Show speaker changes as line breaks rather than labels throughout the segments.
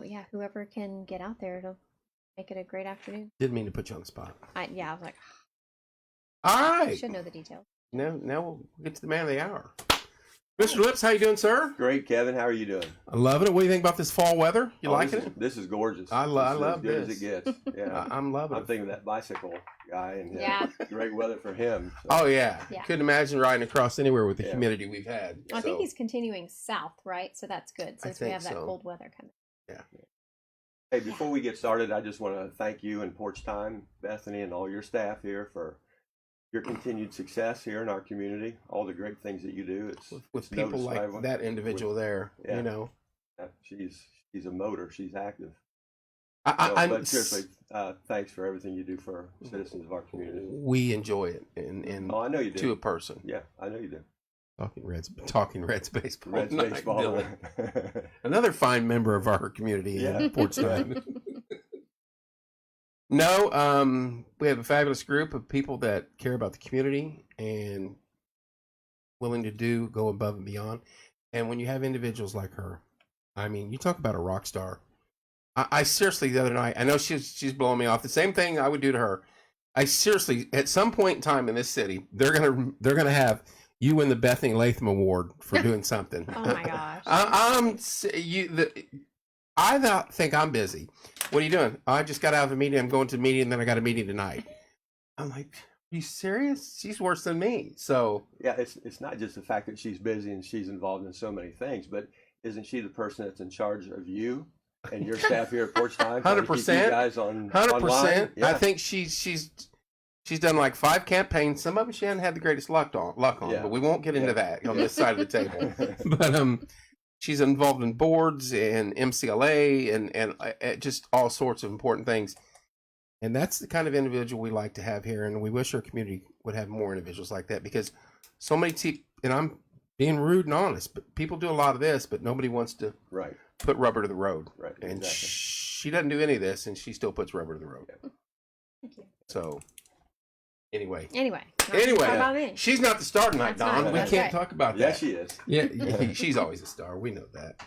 But yeah, whoever can get out there, it'll make it a great afternoon.
Didn't mean to put you on the spot.
I, yeah, I was like,
All
I
right.
should know the details.
Now, now we'll get to the man of the hour. Mr. Lips, how you doing, sir?
Great, Kevin. How are you doing?
I love it. What do you think about this fall weather? You
Oh,
liking
this is-
it?
This is gorgeous.
I lo- I
is
love
as good
this.
as it gets. Yeah,
I- I'm loving
I'm
it.
thinking of that bicycle guy and uh,
Yeah.
great weather for him. so-
Oh yeah.
Yeah.
couldn't imagine riding across anywhere with the
Yeah.
humidity we've had.
I think
So,
he's continuing south, right? So that's good since we
think
have that
so.
cold weather coming.
Hey, before we get started, I just want to thank you and Porch Time, Bethany, and all your staff here for your continued success here in our community. All the great things that you do. It's
with, with
it's
people
noticed by
like
everyone.
that individual there,
Yeah.
you know.
Yeah, She's she's a motor. She's active.
I, I,
So,
I'm-
but seriously, uh, thanks for everything you do for citizens of our community.
we enjoy it and, and
Oh, I know you do.
to a person.
Yeah, I know you do.
Talking Reds talking Reds baseball.
Reds
tonight,
baseball.
Dylan. Another fine member of our community
Yeah.
in Portsmouth. No, um, we have a fabulous group of people that care about the community and willing to do go above and beyond. And when you have individuals like her, I mean, you talk about a rock star. I, I seriously, the other night, I know she's she's blowing me off. The same thing I would do to her. I seriously, at some point in time in this city, they're gonna they're gonna have you win the Bethany Latham Award for doing something.
Oh my gosh.
I, I'm s- you. The, I th- think I'm busy. What are you doing? I just got out of a meeting. I'm going to a meeting, and then I got a meeting tonight. I'm like, are you serious? She's worse than me. So
Yeah, it's it's not just the fact that she's busy and she's involved in so many things, but isn't she the person that's in charge of you and your staff here at Porch Time? trying to keep you
100%.
guys on
hundred
online?
percent. I
Yeah.
think she's she's she's done like five campaigns. Some of them she hasn't had the greatest luck on. Luck on,
Yeah.
but we won't get into
Yeah.
that on this side of the table.
think.
But um, she's involved in boards and MCLA and and uh, uh, just all sorts of important things. And that's the kind of individual we like to have here, and we wish our community would have more individuals like that because so many. Te- and I'm being rude and honest, but people do a lot of this, but nobody wants to
right,
put rubber to the road.
right,
And
exactly.
she doesn't do any of this, and she still puts rubber to the road.
Thank you.
So, anyway,
Anyway. not
Anyway.
about me.
she's not the star tonight,
That's not-
Don. we
that's
can't
right.
talk about
yeah,
that.
she is.
Yeah, she's always a star. We know that.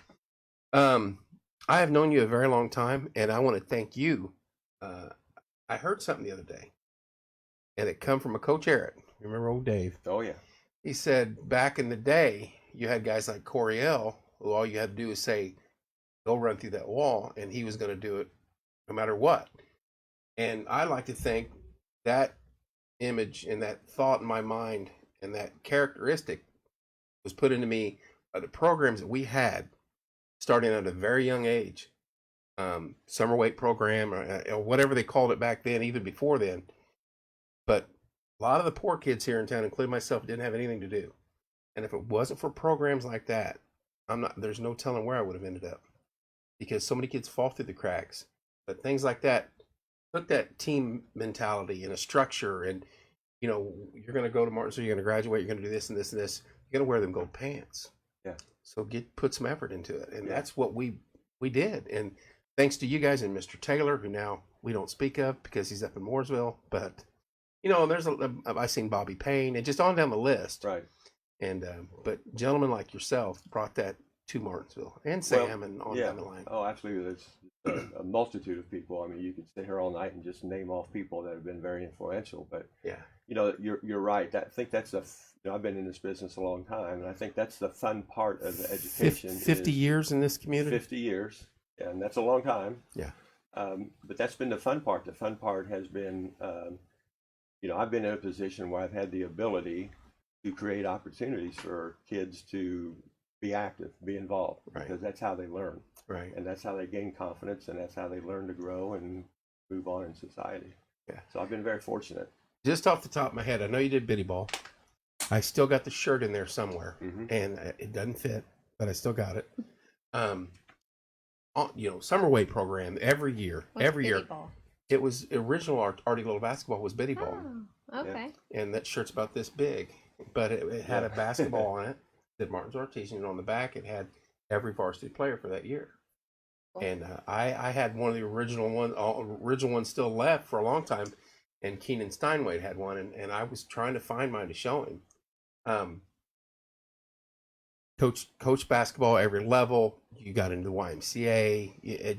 Um, I have known you a very long time, and I want to thank you. Uh, I heard something the other day, and it come from a coach Eric. Remember old Dave?
Oh yeah,
He said back in the day, you had guys like Coriel, who all you had to do was say, "Go run through that wall," and he was going to do it no matter what. And I like to think that image and that thought in my mind and that characteristic was put into me by the programs that we had starting at a very young age um, summer weight program or, uh, or whatever they called it back then even before then but a lot of the poor kids here in town including myself didn't have anything to do and if it wasn't for programs like that i'm not there's no telling where i would have ended up because so many kids fall through the cracks but things like that put that team mentality and a structure and you know you're going to go to martinsville you're going to graduate you're going to do this and this and this you're going to wear them gold pants
Yeah.
so get put some effort into it and
Yeah.
that's what we we did and thanks to you guys and mr taylor who now we don't speak of because he's up in mooresville but you know and there's a i've seen bobby payne and just on down the list
right.
and um, but gentlemen like yourself brought that to martinsville and
Well,
sam and on
yeah.
down the line
Oh, absolutely. There's a, a multitude of people. I mean, you could sit here all night and just name off people that have been very influential, but
yeah
you know, you're you're right. That, I think that's the. f- You know, I've been in this business a long time, and I think that's the fun part of Uh, the education.
Fif- 50
is-
years in this community
50 years, and that's a long time.
Yeah.
Um, but that's been the fun part. The fun part has been, um, you know, I've been in a position where I've had the ability to create opportunities for kids to be active, be involved,
Right.
because that's how they learn,
right
and that's how they gain confidence, and that's how they learn to grow and move on in society.
Yeah.
So I've been very fortunate.
just off the top of my head i know you did biddy ball i still got the shirt in there somewhere
Mm-hmm.
and I- it doesn't fit, but I still got it. Um, on- you know, summer weight program every year,
What's
every year.
pity ball?
It was original art, Artie Little Basketball was Biddy Ball,
Oh, okay.
and that shirt's about this big, but it, it had a
Yeah.
basketball on it that Martin's Artesian, and on the back it had every varsity player for that year.
Cool.
And uh, I, I had one of the original one, all, original ones still left for a long time, and Keenan Steinway had one, and, and I was trying to find mine to show him. Um, coach, coach basketball every level. You got into the YMCA. It- it